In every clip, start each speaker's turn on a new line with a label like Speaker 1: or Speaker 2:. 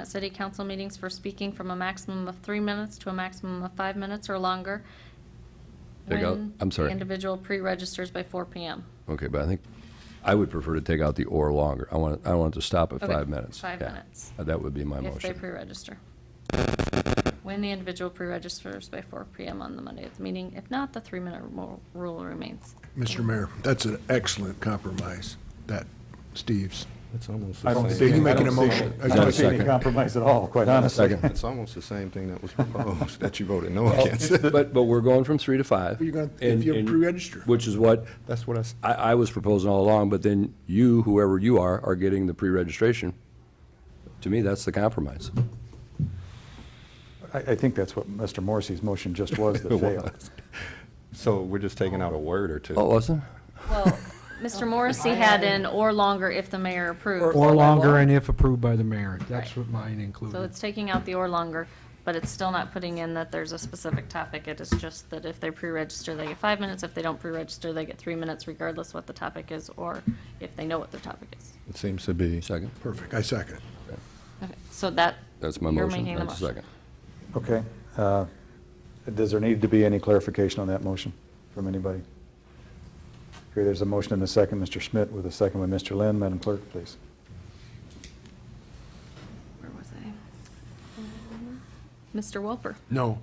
Speaker 1: at city council meetings for speaking from a maximum of three minutes to a maximum of five minutes or longer.
Speaker 2: Take out-
Speaker 1: when
Speaker 2: I'm sorry.
Speaker 1: the individual pre-registers by four PM.
Speaker 2: Okay, but I think, I would prefer to take out the or longer. I want, I want it to stop at
Speaker 1: Okay,
Speaker 2: five minutes.
Speaker 1: five
Speaker 2: Yeah.
Speaker 1: minutes.
Speaker 2: Uh, That would be my
Speaker 1: If they
Speaker 2: motion.
Speaker 1: pre-register. When the individual pre-registers by four PM on the Monday of the meeting, if not, the three-minute ru- rule remains.
Speaker 3: Oh.
Speaker 4: Mr. Mayor, that's an excellent compromise, that, Steve's.
Speaker 5: It's almost.
Speaker 6: I don't
Speaker 4: So
Speaker 6: see,
Speaker 4: you
Speaker 6: I
Speaker 4: making a
Speaker 6: don't see,
Speaker 4: motion?
Speaker 6: I
Speaker 2: Is there a
Speaker 6: don't see any
Speaker 2: second?
Speaker 6: compromise at all, quite honestly.
Speaker 5: It's almost the same thing that was proposed, that you voted no
Speaker 2: Oh,
Speaker 5: against.
Speaker 2: But, but we're going from three to five.
Speaker 4: You're gonna- if
Speaker 2: and-
Speaker 4: you
Speaker 2: and-
Speaker 4: pre-register.
Speaker 2: Which is what
Speaker 5: That's what I, s-
Speaker 2: I, I was proposing all along, but then you, whoever you are, are getting the pre-registration. To me, that's the compromise.
Speaker 6: I, I think that's what Mr. Morrissey's motion just was that failed.
Speaker 5: so we're just taking out a word or two.
Speaker 2: Oh, wasn't?
Speaker 1: Well, Mr. Morrissey had an or longer if the mayor approves.
Speaker 3: Or longer and if approved by the mayor. That's what mine
Speaker 1: So
Speaker 3: included.
Speaker 1: it's taking out the or longer, but it's still not putting in that there's a specific topic. It is just that if they pre-register, they get five minutes. If they don't pre-register, they get three minutes regardless what the topic is or if they know what the topic is.
Speaker 5: It seems to be.
Speaker 2: Second?
Speaker 4: Perfect, I second it.
Speaker 1: Okay, So that.
Speaker 2: That's my
Speaker 1: you're
Speaker 2: motion.
Speaker 1: making the
Speaker 2: That's the second.
Speaker 6: Okay. uh, Does there need to be any clarification on that motion from anybody? Here, there's a motion and a second, Mr. Schmidt, with a second by Mr. Lynn. Madam Clerk, please.
Speaker 1: Where was I? Mr. Welper,
Speaker 4: No.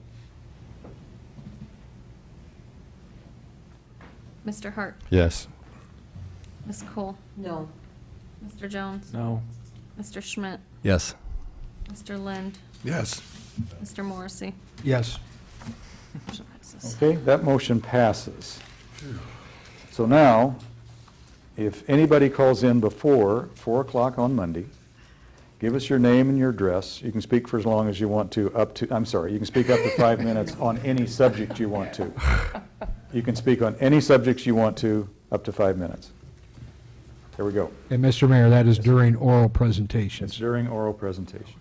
Speaker 1: Mr. Hart,
Speaker 5: Yes.
Speaker 1: Ms. Cole,
Speaker 7: No.
Speaker 1: Mr. Jones,
Speaker 6: No.
Speaker 1: Mr. Schmidt,
Speaker 2: Yes.
Speaker 1: Mr. Lind,
Speaker 4: Yes.
Speaker 1: Mr. Morrissey.
Speaker 3: Yes.
Speaker 1: Motion passes.
Speaker 6: Okay, that motion passes. So now, if anybody calls in before 4 o'clock on Monday, give us your name and your address. You can speak for as long as you want to, up to, I'm sorry, you can speak up to five minutes on any subject you want to. You can speak on any subjects you want to, up to five minutes. There we go.
Speaker 3: And Mr. Mayor, that is during oral
Speaker 6: It's
Speaker 3: presentations.
Speaker 6: during oral presentations.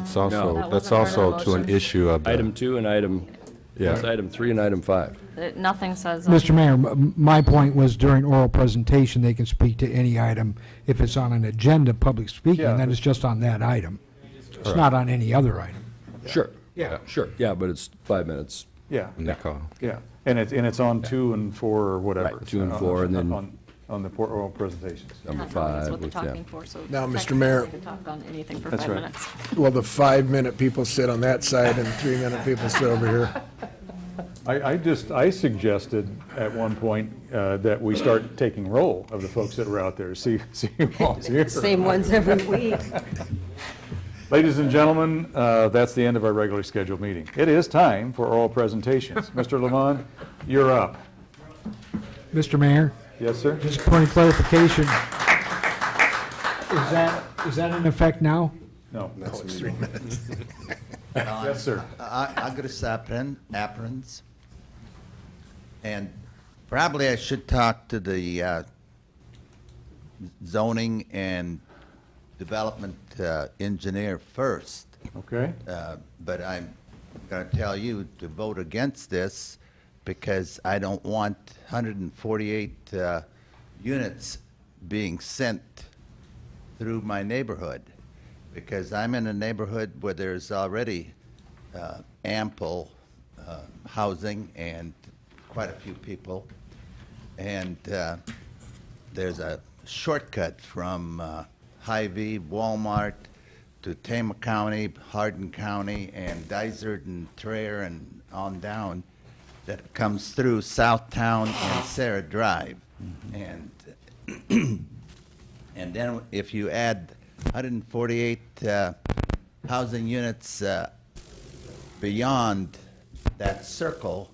Speaker 5: It's
Speaker 2: No.
Speaker 5: also,
Speaker 1: That wasn't
Speaker 5: that's
Speaker 1: part of the
Speaker 5: also to an
Speaker 1: motion.
Speaker 5: issue of. the-
Speaker 2: Item two and item,
Speaker 5: Yeah.
Speaker 2: yes, item three and item five.
Speaker 1: Uh, Nothing says. on-
Speaker 3: Mr. Mayor, m- m- my point was during oral presentation, they can speak to any item. If it's on an agenda, public speaking,
Speaker 6: Yeah.
Speaker 3: then it's just on that item. It's not on any other item.
Speaker 2: Sure.
Speaker 3: Yeah.
Speaker 2: Sure. Yeah, but it's five minutes.
Speaker 6: Yeah,
Speaker 5: And they call.
Speaker 6: yeah. And it's, and it's on two and four or whatever.
Speaker 2: Right, two and four, and then-
Speaker 6: On- On the por- oral presentations.
Speaker 2: Number
Speaker 1: Not knowing is
Speaker 2: five.
Speaker 1: what they're
Speaker 2: with- yeah.
Speaker 1: talking for, so
Speaker 4: Now, Mr.
Speaker 1: technically
Speaker 4: Mayor-
Speaker 1: they can Talk on anything for
Speaker 6: That's
Speaker 1: five
Speaker 6: right.
Speaker 1: minutes.
Speaker 4: Well, the five-minute people sit on that side and the three-minute people sit over here.
Speaker 6: I, I just, I suggested at one point uh, that we start taking roll of the folks that were out there, see, see who was here.
Speaker 7: Same ones every week.
Speaker 6: Ladies and gentlemen, uh, that's the end of our regularly scheduled meeting. It is time for oral presentations. Mr. Levon, you're up.
Speaker 3: Mr. Mayor,
Speaker 6: Yes, sir?
Speaker 3: just a point of clarification. Is that, is that in effect now?
Speaker 6: No.
Speaker 4: It's three minutes.
Speaker 6: Yes, sir.
Speaker 8: I, I got a sapien, apparence. And probably I should talk to the uh, zoning and development uh, engineer first.
Speaker 6: Okay.
Speaker 8: Uh, But I'm going to tell you to vote against this because I don't want 148 uh, units being sent through my neighborhood. Because I'm in a neighborhood where there's already uh, ample uh, housing and quite a few people. And uh, there's a shortcut from uh, Hy-Vee, Walmart, to Tama County, Hardin County, and Dysart and Traer and on down that comes through Southtown and Sarah Drive. And, and then if you add 148 uh, housing units uh, beyond that circle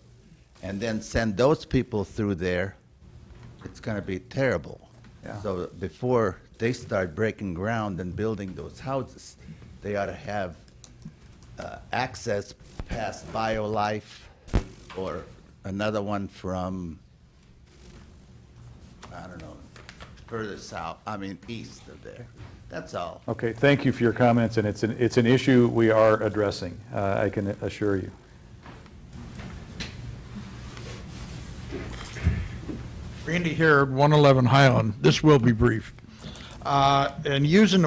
Speaker 8: and then send those people through there, it's going to be terrible. So before they start breaking ground and building those houses, they ought to have uh, access past BioLife or another one from, I don't know, further south, I mean, east of there. That's all.
Speaker 6: Okay, thank you for your comments, and it's an, it's an issue we are addressing, uh, I can assure you.
Speaker 9: Randy Herod, 111 Highland. This will be brief. Uh, And using the